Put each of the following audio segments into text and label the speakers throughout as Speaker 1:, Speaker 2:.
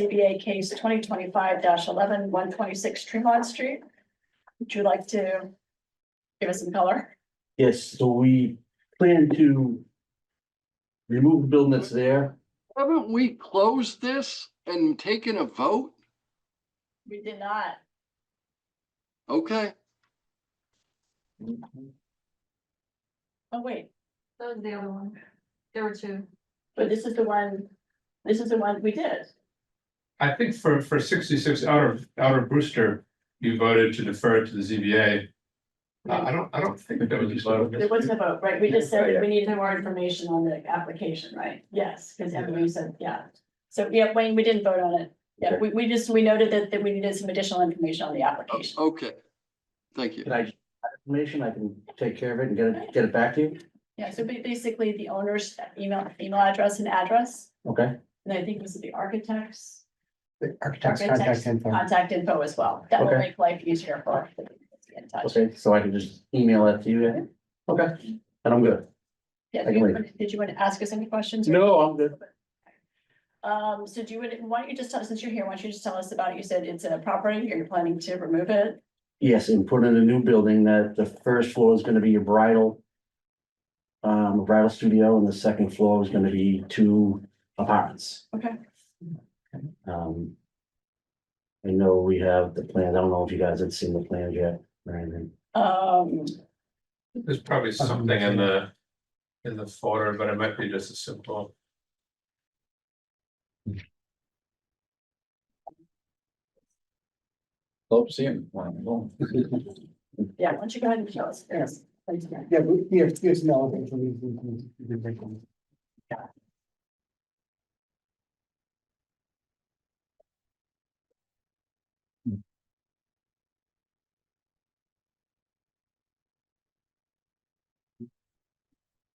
Speaker 1: ZBA case twenty twenty-five 11 eleven, one twenty-six Tremont Street. Would you like to give us some color?
Speaker 2: Yes, so we plan to remove the building that's there.
Speaker 3: Haven't we closed this and taken a vote?
Speaker 1: We did not.
Speaker 3: Okay,
Speaker 1: Oh, wait,
Speaker 4: That was the other one. There were two.
Speaker 1: but this is the one, this is the one we did.
Speaker 5: I think for, for sixty-six outer, outer Brewster, you voted to defer to the ZBA. I, I don't, I don't think that was a vote.
Speaker 1: There wasn't a vote, right? We Oh, just said that we needed more information on the application, right? Yes, because Emily said, yeah. So, yeah, Wayne, we didn't vote on it. Yeah, we, we just, we noted that, that we needed some additional information on the
Speaker 3: o-
Speaker 1: application.
Speaker 3: okay. Thank you.
Speaker 2: Can I, information, I can take care of it and get it, get it back to you,
Speaker 1: Yeah, so ba- basically the owner's email, email address and address,
Speaker 2: okay?
Speaker 1: and I think it was the architects.
Speaker 6: The architect's
Speaker 1: Architect's
Speaker 6: contact info.
Speaker 1: contact info as well. That will
Speaker 2: Okay.
Speaker 1: make life easier for us to get in touch.
Speaker 2: Okay, so I can just email that to you, yeah? okay, and I'm good.
Speaker 1: Yeah,
Speaker 2: I can
Speaker 1: you
Speaker 2: wait.
Speaker 1: wanna- did you want to ask us any questions? or-
Speaker 2: No, I'm good.
Speaker 1: Um, so do you, wanna- why don't you just tell, since you're here, why don't you just tell us about, it? you said it's in a property, you're planning to remove it?
Speaker 2: Yes, and put in a new building that the first floor is gonna be your bridal. Um, bridal studio and the second floor is gonna be two apartments.
Speaker 1: Okay.
Speaker 2: Um. I know we have the plan, I don't know if you guys had seen the plans yet, or anything.
Speaker 1: Um,
Speaker 5: There's probably something in the, in the folder, but it might be just a simple.
Speaker 7: Hope see him. when I'm going.
Speaker 1: yeah, why don't you go ahead and show us? Yes. Thanks, Mary.
Speaker 6: Yeah, we, we have, there's no. we can- we can break them.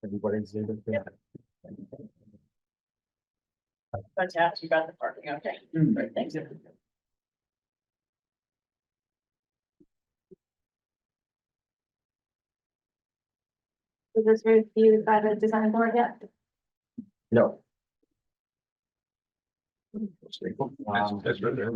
Speaker 2: Everybody's there. but-
Speaker 1: Yep. But to ask you about the parking, okay?
Speaker 2: Hmm.
Speaker 1: Great, thanks.
Speaker 4: Was this reviewed by the design board yet?
Speaker 2: No.
Speaker 5: That's-
Speaker 2: Um,
Speaker 5: that's right there.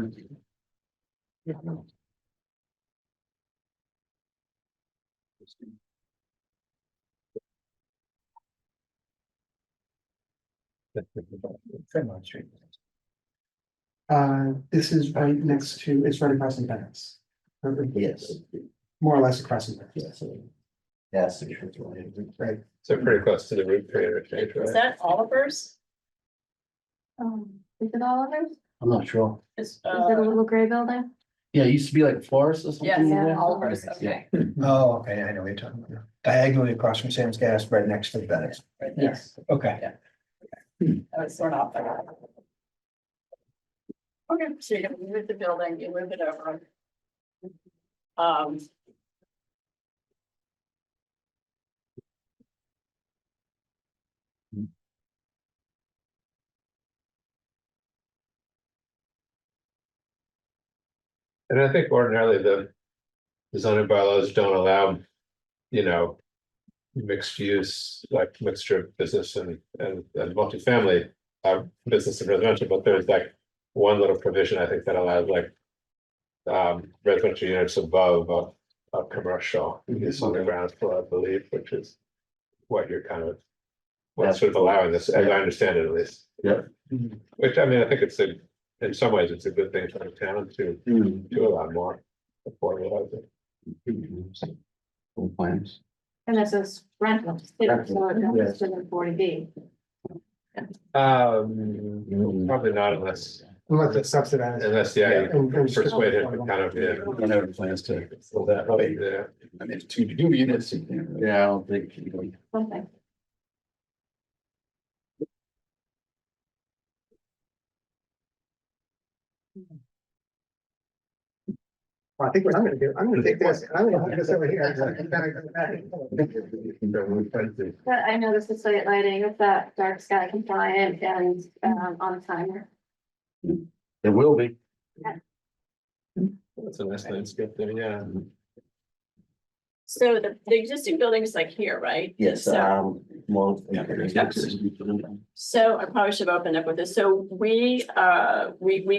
Speaker 7: Fremont Street.
Speaker 6: Uh, this is right next to, it's right across from Bennett's.
Speaker 2: Yes,
Speaker 6: More or less across from Bennett's.
Speaker 2: yes. Yes. the truth will be-
Speaker 6: Right.
Speaker 5: So pretty close to the root period, I think,
Speaker 1: Is
Speaker 5: right?
Speaker 1: that Oliver's?
Speaker 4: Um, is it all others? Is
Speaker 2: I'm not sure.
Speaker 1: Is,
Speaker 4: it a
Speaker 1: uh,
Speaker 4: little gray building?
Speaker 2: Yeah, it used to be like a florist or something.
Speaker 1: yes,
Speaker 2: in there.
Speaker 1: Oliver's,
Speaker 2: Yeah.
Speaker 1: okay.
Speaker 6: Oh, okay, I know what you're talking about. Diagonally across from Sam's Gas, right next to Bennett's.
Speaker 1: Right there.
Speaker 6: Yes. Okay.
Speaker 1: I was sort of. Okay, so you move the building, you move it over. Um.
Speaker 5: And I think ordinarily the the zoning bylaws don't allow, you know, mixed use, like mixture of business and, and, and multifamily, uh, business and residential, but there's like one little provision, I think, that allows like um, residential units above a, a commercial, is on the ground floor, I believe, which is what you're kind of what's sort of allowing this, as I understand it at least.
Speaker 2: Yeah.
Speaker 5: Which, I mean, I think it's a, in some ways, it's a good thing for the town to
Speaker 2: Hmm.
Speaker 5: do a lot more. affordable housing.
Speaker 2: Old plans.
Speaker 4: And this is rental, so it's
Speaker 2: Yes.
Speaker 4: within forty B.
Speaker 5: Um, probably not unless,
Speaker 6: Unless it's subsidized.
Speaker 5: unless, yeah, you persuade him to kind of, yeah.
Speaker 7: I never plans to. fill that up. I
Speaker 5: Yeah,
Speaker 7: mean, it's two two units. you can't really-
Speaker 2: Yeah, I don't think. you know,
Speaker 4: Something.
Speaker 6: Well, I think what I'm gonna do, I'm gonna take this, and I'm gonna put this over here. and I'm gonna go back.
Speaker 4: But I know this is site lighting, it's that dark sky compliant and um on timer.
Speaker 2: There will be.
Speaker 5: that's a nice landscape there, yeah.
Speaker 1: So the, the existing building is like here, right?
Speaker 2: Yes,
Speaker 1: So,
Speaker 2: um, well.
Speaker 7: Yeah, there's-
Speaker 1: so I probably should have opened up with this. So we, uh, we, we